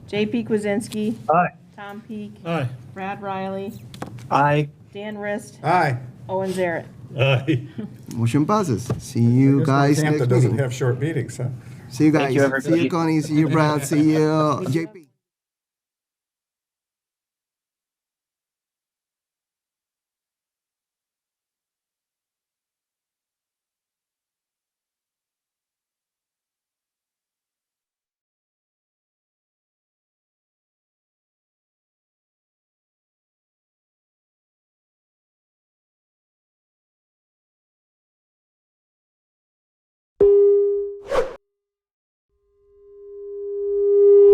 JP Kwasinski, Aye. Tom Peak, Aye. Brad Riley, Aye. Dan Rist, Aye. Owen Zaret. Aye. Motion passes. See you guys next Hampton doesn't meeting. have short meetings, huh? See you guys. you, See everybody. you, Connie. See you, Brad. See you, JP.